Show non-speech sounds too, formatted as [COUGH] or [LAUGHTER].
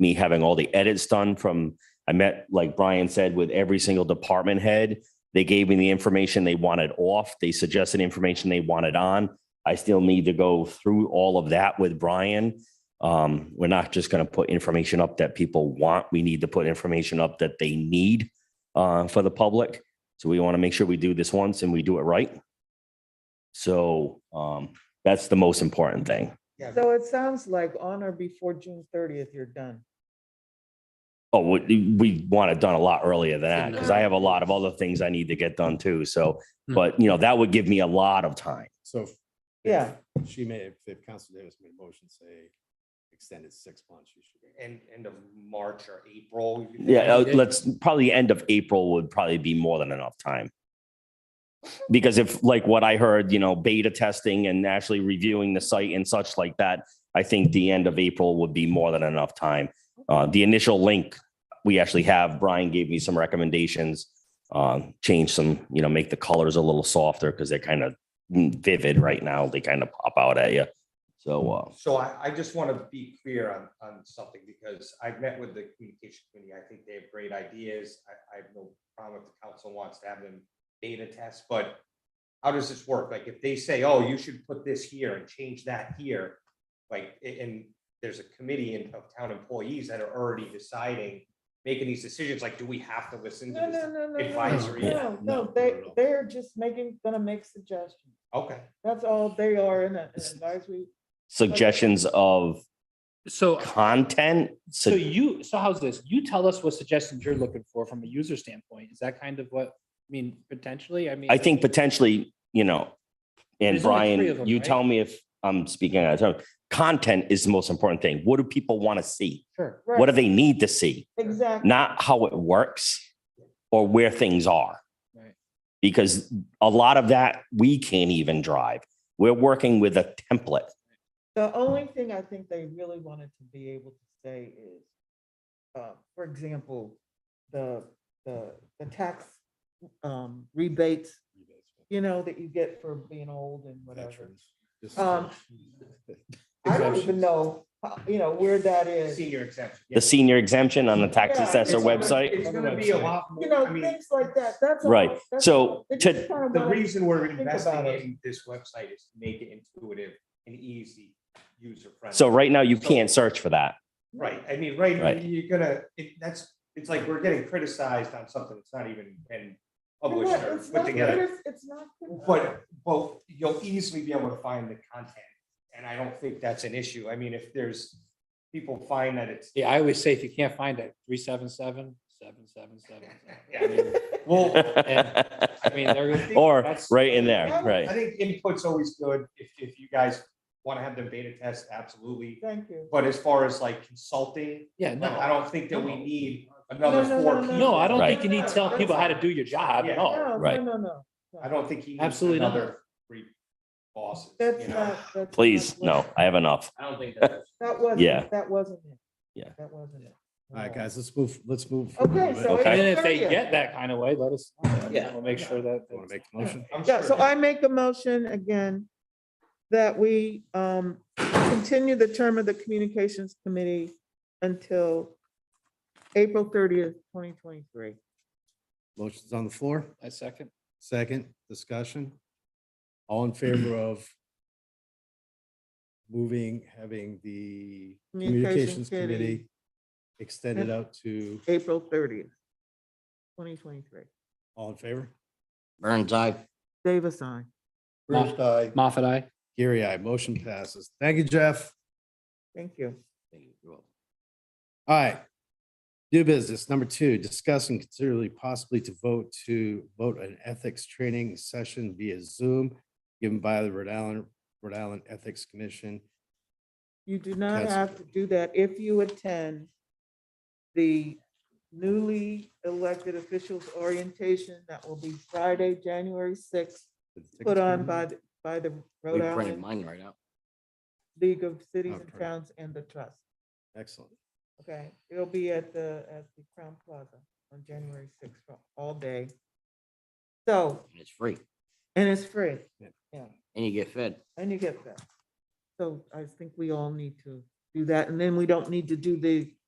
me having all the edits done from, I met, like Brian said, with every single department head. They gave me the information they wanted off. They suggested information they wanted on. I still need to go through all of that with Brian. Um, we're not just going to put information up that people want. We need to put information up that they need uh, for the public. So we want to make sure we do this once and we do it right. So um, that's the most important thing. So it sounds like on or before June thirtieth, you're done. Oh, we, we want it done a lot earlier than that because I have a lot of other things I need to get done too. So, but you know, that would give me a lot of time. So. if- Yeah. if She may, if- if Council Davis made a motion, say extended six months, you should. End, end of March or April. you think? Yeah, uh, let's probably end of April would probably be more than enough time. Because if like what I heard, you know, beta testing and actually reviewing the site and such like that, I think the end of April would be more than enough time. Uh, the initial link we actually have, Brian gave me some recommendations. Um, change some, you know, make the colors a little softer because they're kind of vivid right now. They kind of pop out at you. So, uh, So I, I just want to be clear on, on something because I've met with the communication committee. I think they have great ideas. I, I have no problem if the council wants to have them beta test, but how does this work? Like if they say, oh, you should put this here and change that here, like, a- and there's a committee in- of town employees that are already deciding, making these decisions, like, do we have to listen No, to no, this? no, no, no, advisory. no, No, no, they, not at all. they're just making, gonna make suggestions. Okay, That's all they are in a- an advisory. suggestions of So, content. so you, so how's this? You tell us what suggestions you're looking for from a user standpoint. Is that kind of what, I mean, potentially, I mean. I think potentially, you know, and There's only three of Brian, them, you right? tell me if I'm speaking out of turn. Content is the most important thing. What do people want to see? Sure. What do Right, they need to see? Exactly. Not how it works or where things are. Right. Because a lot of that we can't even drive. We're working with a template. The only thing I think they really wanted to be able to say is, uh, for example, the, the, the tax, um, rebates, rebates, but you know, that you get for being old and whatever. veterans, just- Um, I don't even Exemptions. know, how- you you know, where that is. senior exemption. The senior exemption on the tax Yeah, assessor It's gonna- website. It's gonna be a lot more. you know, I mean, things like that, that's. all. Right. That's So all. They to- just kinda The wanna- reason we're Think investing about it. in this website is to make it intuitive and easy, user friendly. So right now you can't search for that. Right, I mean, right, Right. you're gonna, it, that's, it's like we're getting criticized on something that's not even been published Yeah, or It's put not, together. criti- it's not. criti- But, but you'll easily be able to find the content, and I don't think that's an issue. I mean, if there's, people find that it's, [LAUGHS] Yeah, I always say if you can't find it, three, seven, seven, seven, seven, seven. Yeah, I mean, well, I mean, they're. [LAUGHS] Or that's- right in there, I right. think input's always good. If, if you guys wanna have the beta test, absolutely. Thank you. But as far as like consulting, Yeah, like, I no, don't think that we need another No, no, four no, no, people. no, I don't Right. think you need to tell people how to do your job Yeah. at all. No, no, Right. no, no. I don't think he needs Absolutely not. another three bosses, you That's know? not. that's not Please, what- no, I have enough. I [LAUGHS] don't think that. That wasn't, Yeah. that wasn't it. Yeah. That wasn't it. All right, guys, let's move, let's move. Okay, Okay. so. it's And then if they 30th. get that kind of way, let us, know. Yeah. we'll make sure that. Want to make the motion? I'm Yeah, sure so I make a motion again that we um continue the term of the Communications Committee until April thirtieth, twenty twenty-three. Motion's on the floor. I second. Second, discussion. All [CLEARS THROAT] in favor of moving, having the Communications communications committee. committee extended out to, April thirtieth, twenty twenty-three. all in favor? Burns eye. Davis, I. Bruce, aye. Moffat, I. Gary, aye. Motion passes. Thank you, Jeff. Thank you. All right. New business, number two, discuss and considerably possibly to vote to vote an ethics training session via Zoom given by the Rhode Island, Rhode Island Ethics Commission. You do not That's- have to do that if you attend the newly elected officials orientation that will be Friday, January sixth, Did the tickets put come on in? by, the by the We Rhode printed Island mine right out. League of Cities Oh, and perfect. Towns and the Trust. Excellent. Okay, it'll be at the, at the Crown Plaza on January sixth, all day. So, and It's free and it's free, and you get fed. and you get that. So I think we all need to do that, and then we don't need to do the